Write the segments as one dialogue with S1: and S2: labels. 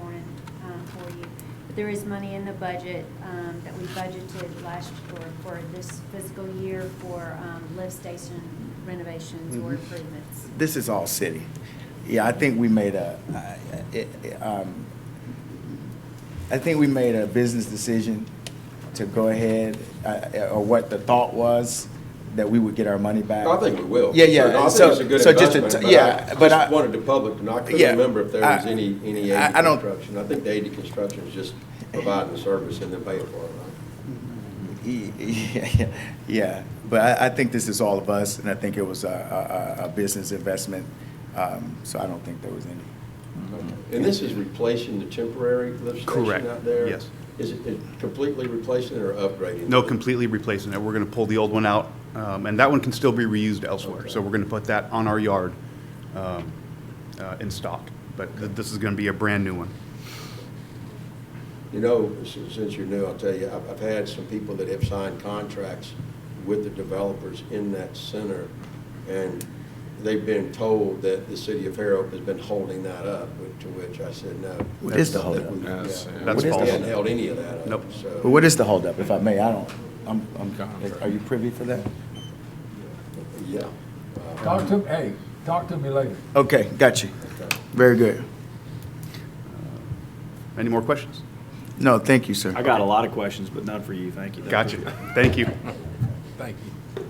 S1: um, There is money in the budget um, that we budgeted last, or for this fiscal year for um, lift station renovations or
S2: Mhm.
S1: improvements.
S2: This is all city. Yeah, I think we made a, I- I- um, I think we made a business decision to go ahead, uh, or what the thought was, that we would get our money back.
S3: I think we will.
S2: Yeah, yeah,
S3: So I
S2: so-
S3: think it's a good
S2: so just to
S3: investment,
S2: t-
S3: but
S2: yeah,
S3: I
S2: but I-
S3: just wanted the public to know, I
S2: Yeah,
S3: couldn't remember if there was
S2: I-
S3: any, any
S2: I-
S3: aid
S2: I
S3: to
S2: don't-
S3: construction. I think the aid to construction is just providing the service and then paying for it, right?
S2: Yeah, yeah, but I, I think this is all of us, and I think it was a, a- a, a business investment, um, so I don't think there was any. Mm-hmm.
S3: And this is replacing the temporary lift
S4: Correct,
S3: station out there?
S4: yes.
S3: Is it is it completely replacing it or upgrading?
S4: No,
S3: it?
S4: completely replacing it. We're going to pull the old one out, um, and that one can still be reused elsewhere.
S3: Okay.
S4: So we're going to put that on our yard um, uh, in stock. But th- this is going to be a brand-new one.
S3: You know, s- since you're new, I'll tell you, I've, I've had some people that have signed contracts with the developers in that center, and they've been told that the city of Fairhope has been holding that up, which- to which I said, no.
S2: What is the holdup?
S3: That's
S4: That's What is the false.
S3: hadn't held any of that
S4: Nope.
S3: up, so.
S2: But what is the holdup, if I may, I don't, I'm, I'm, are you privy for that?
S3: Yeah.
S5: Talk to, hey, talk to me later.
S2: Okay, got you, very good.
S4: Any more questions?
S2: No, thank you, sir.
S6: I got a lot of questions, but none for you. Thank you.
S4: Gotcha. Thank you.
S5: Thank you.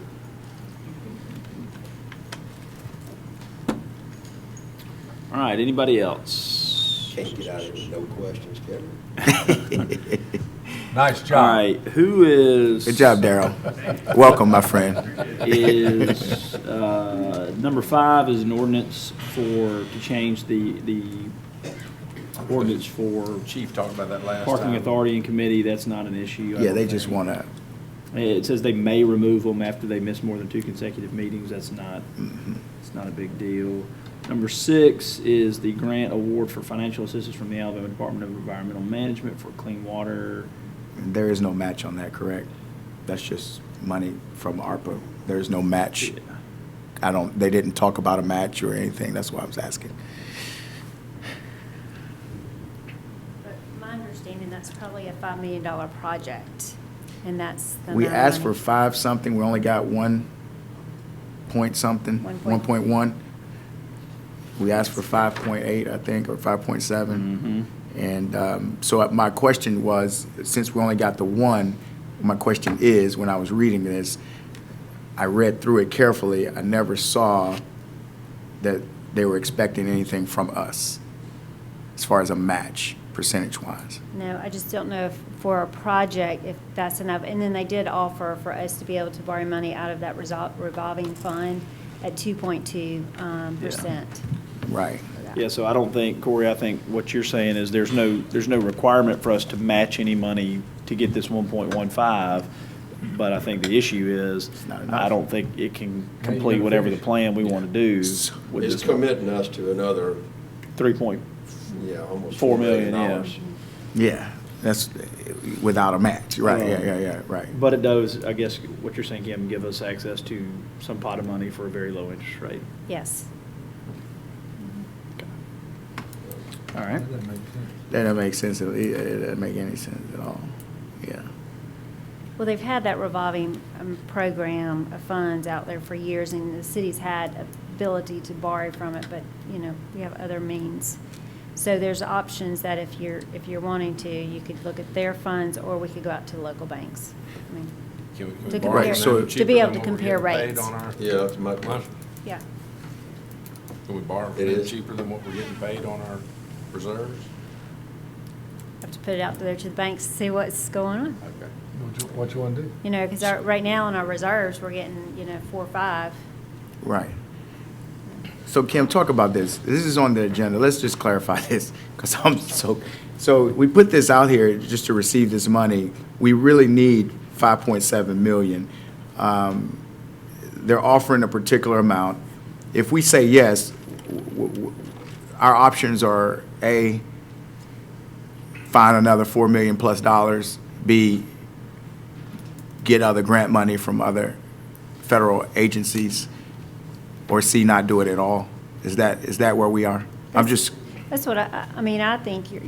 S6: All right, anybody else?
S3: Can't get out of here with no questions, Kevin.
S5: Nice
S6: All
S5: job.
S6: right, who is?
S2: Good job, Daryl. Welcome, my friend.
S6: Is, uh, number five is an ordinance for, to change the, the ordinance for
S7: Chief talked about that last time.
S6: parking authority and committee. That's not an issue. I
S2: Yeah,
S6: don't
S2: they just
S6: think.
S2: wanna,
S6: It says they may remove them after they miss more than two consecutive meetings. That's not, it's not a big deal. Number six is the grant award for financial assistance from the Alabama Department of Environmental Management for clean water.
S2: there is no match on that, correct? That's just money from ARPA, there's no match. I don't, they didn't talk about a match or anything, that's why I was asking.
S1: But my understanding, that's probably a $5 million project, and that's the. amount
S2: We
S1: of
S2: asked for
S1: money.
S2: five something, we only got one point something,
S1: One
S2: one
S1: point-
S2: point one. We asked for five point eight, I think, or five point
S6: Mm-hmm.
S2: seven. And um, so my question was, since we only got the one, my question is, when I was reading this, I read through it carefully, I never saw that they were expecting anything from us as far as a match, percentage-wise.
S1: No, I just don't know if for a project, if that's enough. And then they did offer for us to be able to borrow money out of that resol- revolving fund at 2.2 um,
S6: Yeah.
S1: percent.
S2: Right.
S6: Yeah, so I don't think, Corey, I think what you're saying is there's no, there's no requirement for us to match any money to get this one point one five. But I think the issue is,
S2: not enough.
S6: I don't think it can
S5: gotta
S6: complete whatever the
S5: finish.
S6: plan we want to do with
S3: It's
S6: this
S3: committing us to another,
S6: three point,
S3: yeah, almost.
S6: Four
S3: $4 million.
S6: million, yeah.
S3: dollars.
S2: Yeah, that's without a match, right, yeah, yeah, yeah, right.
S6: but it does, I guess, what you're saying, Kim, give us access to some pot of money for a very low interest rate.
S1: Yes.
S6: All right.
S5: That doesn't make sense.
S2: That doesn't make sense, at- it it doesn't make any sense at all, yeah.
S1: Well, they've had that revolving um, program of funds out there for years, and the city's had ability to borrow from it, but, you know, we have other means. So there's options that if you're, if you're wanting to, you could look at their funds, or we could go out to local banks. I mean,
S7: Can we- can we
S1: To
S7: borrow
S2: compare-
S7: them
S2: so-
S1: to be
S7: cheaper
S1: able
S7: than
S1: to
S7: what we're
S1: compare
S7: getting
S1: rates.
S7: Paid on our.
S3: Yeah, that's my question.
S1: yeah.
S7: Can we borrow
S3: It
S7: from them
S3: is.
S7: cheaper than what we're getting paid on our reserves?
S1: Have to put it out there to the banks, to see what's going on.
S7: Okay.
S5: What you- What you want to do?
S1: You know, because right now in our reserves, we're getting, you know, four or five.
S2: Right. So Kim, talk about this. This is on the agenda. Let's just clarify this, because I'm so, so we put this out here just to receive this money. We really need 5.7 million. Um, They're offering a particular amount. If we say yes, w- w- our options are A, find another 4 million plus dollars, B, get other grant money from other federal agencies, or C, not do it at all? Is that, is that where we are? I'm just
S1: That's what I, I- I mean, I think you're,